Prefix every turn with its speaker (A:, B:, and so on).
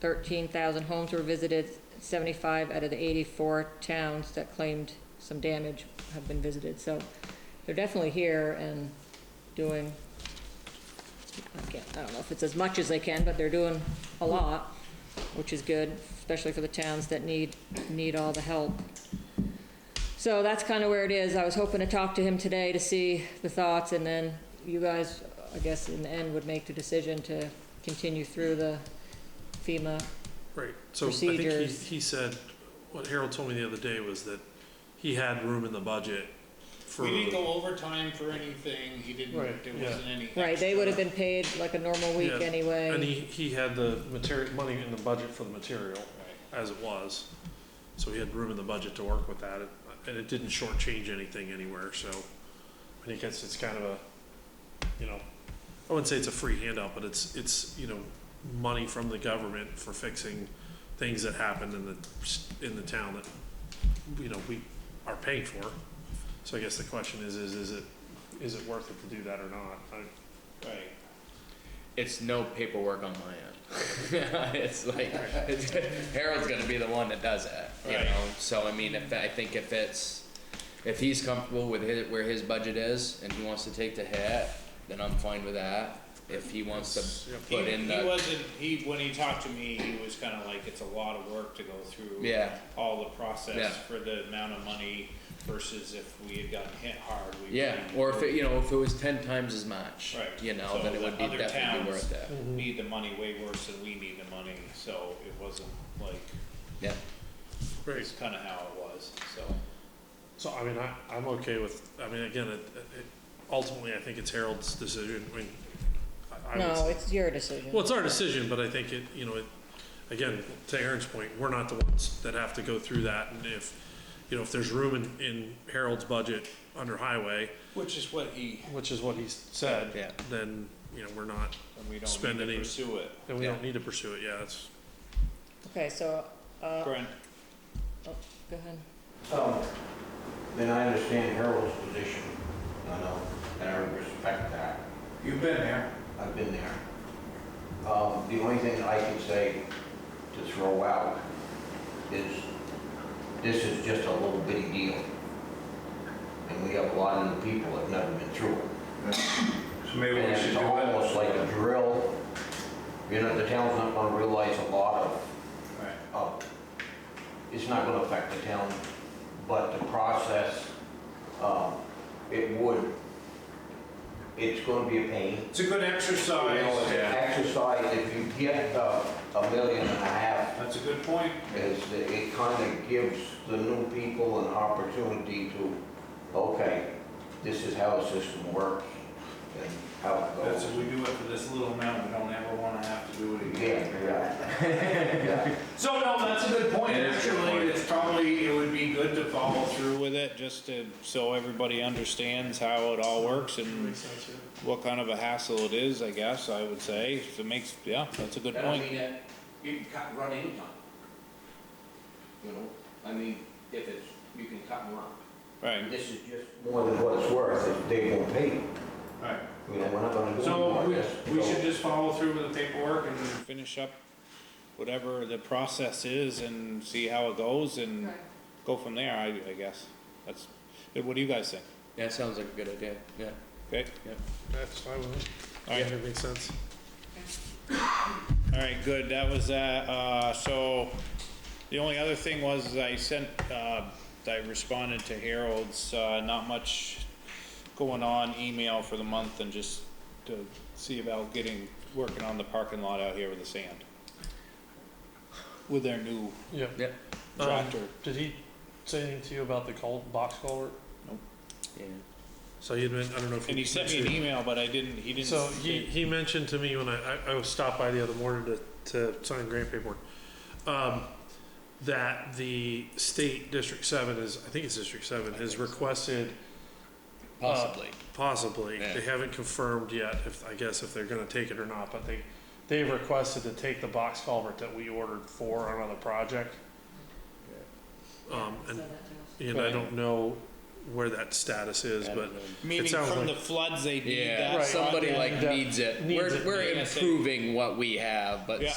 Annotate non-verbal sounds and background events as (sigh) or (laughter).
A: 13,000 homes were visited, 75 out of the 84 towns that claimed some damage have been visited. So they're definitely here and doing, I can't, I don't know if it's as much as they can, but they're doing a lot, which is good, especially for the towns that need, need all the help. So that's kind of where it is. I was hoping to talk to him today to see the thoughts, and then you guys, I guess, in the end, would make the decision to continue through the FEMA.
B: Right, so I think he,
A: Procedures.
B: he said, what Harold told me the other day was that he had room in the budget for.
C: We didn't go overtime for anything, he didn't,
B: Right,
C: there
B: yeah.
C: wasn't any.
A: Right, they would have
C: extra.
A: been paid like a normal week
B: Yeah, And
A: anyway.
B: he, he had the material, money in the budget for the material,
C: Right.
B: as it was. So he had room in the budget to work with that, and it didn't shortchange anything anywhere, so I think it's, it's kind of a, you know, I wouldn't say it's a free handout, but it's, it's, you know, money from the government for fixing things that happened in the, in the town that, you know, we are paying for. So I guess the question is, is, is it, is it worth it to do that or not? I-
C: Right.
D: It's no paperwork on my end. (laughs) it's like it's, Harold's gonna be the one that does it, you
C: Right.
D: know. So I mean, if I think if it's if he's comfortable with his, where his budget is and he wants to take the hit, then I'm fine with that. If he wants to
B: Yep.
C: He,
D: put in
C: he
D: the
C: wasn't, he, when he talked to me, he was kinda like, it's a lot of work to go through.
D: Yeah.
C: All the
D: Yeah.
C: process for the amount of money versus if we had gotten hit hard, we.
D: yeah,
C: would've-
D: or if it, you know if it was ten times as much,
C: Right.
D: you know,
C: So
D: then it
C: the
D: would be
C: other
D: definitely
C: towns-
D: worth it.
C: Need the money way worse than we need the money, so it wasn't like,
D: Yeah,
C: it's kinda how it was, so.
B: So, I mean, I, I'm okay with, I mean, again, it, it, ultimately, I think it's Harold's decision, I mean. I- I would-
A: No, it's your decision.
B: Well, it's our decision, but I think it, you know, it, again, to Aaron's point, we're not the ones that have to go through that, and if, you know, if there's room in, in Harold's budget under highway,
C: Which is what he,
B: which is what he said.
D: Yeah.
B: Then, you know, we're not,
C: and we don't
B: Spend
C: need
B: any-
C: to pursue it.
B: then we
D: Yeah.
B: don't need to pursue it, yeah, it's,
A: Okay, so, uh, go
C: Brent,
A: ahead.
E: So, then I understand Harold's position, I know, and I respect that.
F: You've been there.
E: I've been there. Um, The only thing I can say to throw out is, this is just a little bitty deal. And we have a lot of new people that have never been through it.
F: So maybe
E: And
F: we should
E: it's
F: do
E: almost
F: it.
E: like a drill. You know, the town's not gonna realize a lot of
C: right,
E: up. It's not gonna affect the town, but the process, um, it would, it's gonna be a pain.
F: It's a good
E: You
C: Oh,
E: know,
F: exercise.
E: it's an exercise, if you get uh, a million and a half,
F: That's a good point.
E: is that it kinda gives the new people an opportunity to, okay, this is how the system works and how it
F: That's
E: goes.
F: if we do it for this little amount, we don't ever want to have to do it again.
E: Yeah, yeah. yeah.
F: So no, that's a good point.
D: It is a good
F: Actually,
D: point.
F: it's probably, it would be good to
C: follow
F: follow.
C: through with it, just to, so everybody understands how it all works and
B: makes sense, yeah.
C: what kind of a hassle it is, I guess, I would say. If It makes, yeah, that's a good
E: And I
C: point.
E: mean, that, you can cut and run anytime. You know, I mean, if it's, you can cut and run.
C: Right,
E: This is just more than what it's worth, if they won't pay, you
F: Right.
E: know, we're not gonna do anything
F: So
E: like this.
F: we, we should just follow through with the paperwork and
C: finish up whatever the process is and see how it goes and go from there, I, I guess. That's, what do you guys think?
D: yeah, sounds like a good idea. Yeah,
C: Okay,
B: That's fine with it.
C: all
B: Yeah,
C: right,
B: it makes sense.
C: all right, good, that was that, uh, so the only other thing was is I sent, uh, I responded to Harold's, uh, not much going on email for the month and just to see about getting, working on the parking lot out here with the sand. With their new
B: Yeah.
D: yeah,
C: Uh,
B: Um,
C: tractor.
B: Did he say anything to you about the cul, box culvert?
D: yeah.
B: So he had been, I don't know if.
C: And he sent me an email, but I didn't, he didn't.
B: So he, he mentioned to me when I, I, I was stopped by the other morning to, to sign grant paperwork, um, that the state District Seven is, I think it's District Seven, has requested
D: possibly.
B: possibly,
D: Yeah.
B: they haven't confirmed yet if, I guess if they're gonna take it or not, but they, they've requested to take the box culvert that we ordered for on another project. Um, and, and I don't know where that status is,
D: I
B: but
D: don't know.
C: Meaning
B: sounds
C: from
B: like-
C: the floods, they need
D: Yeah,
C: that.
B: Right.
D: somebody
C: project.
D: like
B: that
D: needs it.
B: needs
D: we're
B: it.
D: we're
C: Yeah.
D: improving what we have, but
C: Yeah.